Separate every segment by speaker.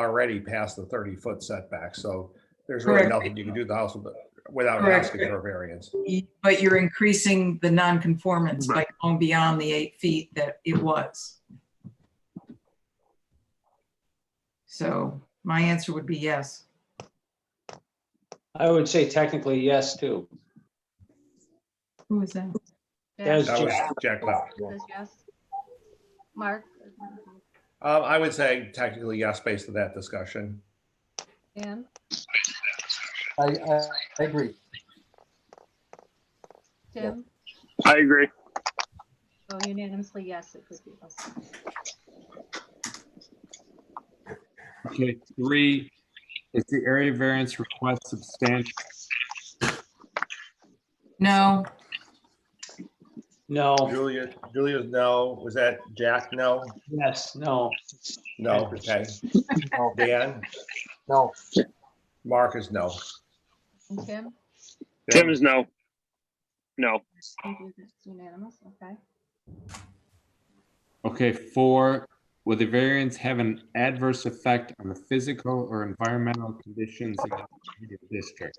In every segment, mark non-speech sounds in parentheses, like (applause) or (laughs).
Speaker 1: already past the thirty foot setback, so there's really
Speaker 2: Correct.
Speaker 1: nothing you can do to the house with- without
Speaker 2: Correct.
Speaker 1: asking for a variance.
Speaker 2: But you're increasing the nonconformance by going beyond the eight feet that it was. So my answer would be yes.
Speaker 3: I would say technically yes too.
Speaker 2: Who is that?
Speaker 3: That was
Speaker 1: That was
Speaker 3: Jack.
Speaker 1: Jack Left.
Speaker 4: Says yes. Mark?
Speaker 1: Um, I would say technically yes, based on that discussion.
Speaker 4: Dan?
Speaker 5: I, I, I agree.
Speaker 4: Tim?
Speaker 6: I agree.
Speaker 4: Oh, unanimously, yes, it could be us.
Speaker 7: Okay, three, is the area variance request substantial?
Speaker 2: No,
Speaker 3: No,
Speaker 1: Julia, Julia's no. Was that Jack? No?
Speaker 3: yes, no.
Speaker 1: No, (laughs) okay.
Speaker 5: No,
Speaker 1: Dan?
Speaker 5: No,
Speaker 1: Mark is no.
Speaker 4: And Tim?
Speaker 1: Tim
Speaker 6: Tim is no. No.
Speaker 4: It's Unanimous, okay.
Speaker 7: Okay, four, will the variance have an adverse effect on the physical or environmental conditions in the district?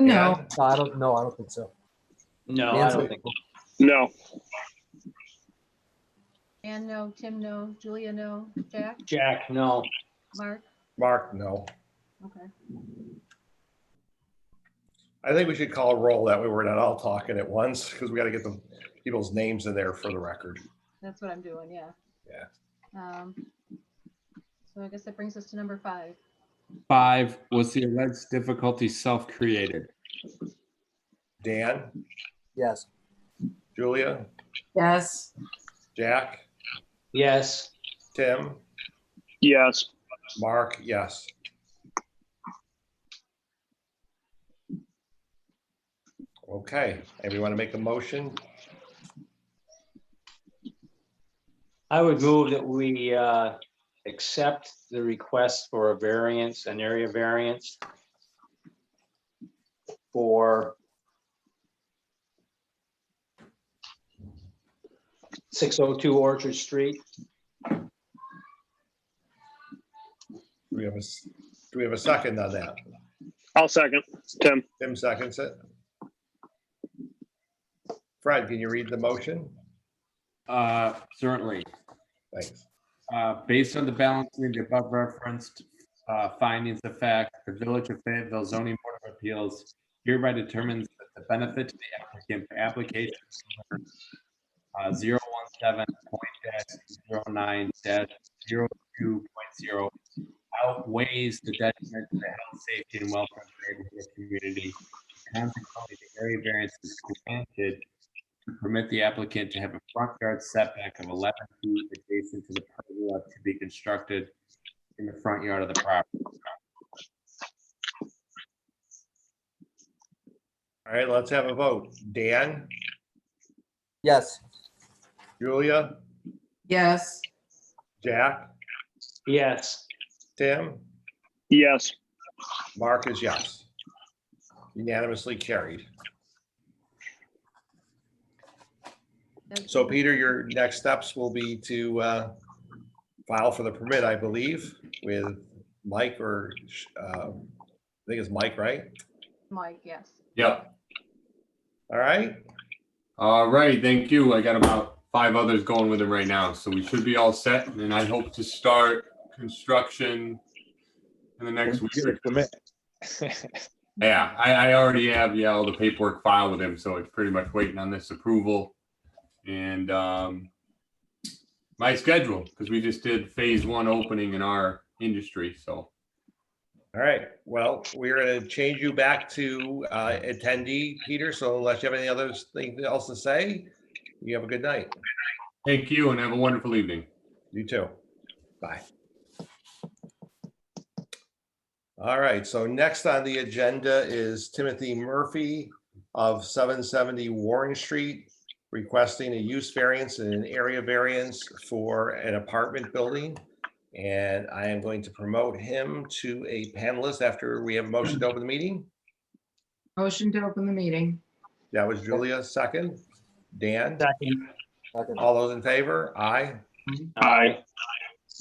Speaker 2: no,
Speaker 5: no, I don't, no, I don't think so.
Speaker 3: No, I
Speaker 5: Dan's
Speaker 3: don't
Speaker 5: like,
Speaker 3: think,
Speaker 6: No.
Speaker 4: Dan, no. Tim, no. Julia, no. Jack?
Speaker 3: Jack, no.
Speaker 4: Mark?
Speaker 1: Mark, no.
Speaker 4: Okay.
Speaker 1: I think we should call a roll that way we're not all talking at once because we got to get the people's names in there for the record.
Speaker 4: That's what I'm doing, yeah.
Speaker 1: Yeah.
Speaker 4: Um, so I guess that brings us to number five.
Speaker 7: Five, was the alleged difficulty self-created?
Speaker 1: Dan,
Speaker 5: Yes,
Speaker 1: Julia,
Speaker 2: yes,
Speaker 1: Jack,
Speaker 3: Yes,
Speaker 1: Tim,
Speaker 6: Yes.
Speaker 1: Mark, yes. Okay, everyone want to make a motion?
Speaker 3: I would move that we uh accept the request for a variance, an area variance for six oh two Orchard Street.
Speaker 1: Do we have a, s- do we have a second on that?
Speaker 6: I'll second. Tim.
Speaker 1: Tim seconds it. Fred, can you read the motion?
Speaker 7: Uh, certainly.
Speaker 1: Thanks.
Speaker 7: Uh, based on the balancing of the above referenced uh, findings of fact, the Village of Fayetteville zoning board of appeals hereby determines that the benefit to the applicant for application uh, 017.09-02.0 outweighs the detriment to the health, safety, and welfare of the neighborhood community. Consequently, the area variance is granted to permit the applicant to have a front yard setback of 11 feet adjacent to the pergola to be constructed in the front yard of the property.
Speaker 1: All right, let's have a vote. Dan,
Speaker 5: yes,
Speaker 1: Julia,
Speaker 2: yes,
Speaker 1: Jack,
Speaker 3: Yes,
Speaker 1: Tim,
Speaker 6: Yes.
Speaker 1: Mark is yes. Unanimously carried.
Speaker 4: That's-
Speaker 1: So Peter, your next steps will be to uh, file for the permit, I believe, with Mike or, um, I think it's Mike, right?
Speaker 4: Mike, yes.
Speaker 8: Yep.
Speaker 1: All right,
Speaker 8: All right. Thank you. I got about five others going with him right now, so we should be all set. And I hope to start construction in the next week. or- Yeah, I, I already have, yeah, all the paperwork filed with him, so it's pretty much waiting on this approval. And, um, my schedule, because we just did phase one opening in our industry, so.
Speaker 1: all right. Well, we're going to change you back to uh, attendee, Peter. So unless you have any other thing else to say, you have a good night.
Speaker 8: Thank you and have a wonderful evening.
Speaker 1: You too. Bye. All right, so next on the agenda is Timothy Murphy of 770 Warren Street requesting a use variance and an area variance for an apartment building. And I am going to promote him to a panelist after we have a motion to open the meeting.
Speaker 2: motion to open the meeting.
Speaker 1: That was Julia, second. Dan,
Speaker 3: second.
Speaker 5: second,
Speaker 1: all those in favor? Aye.
Speaker 3: Aye.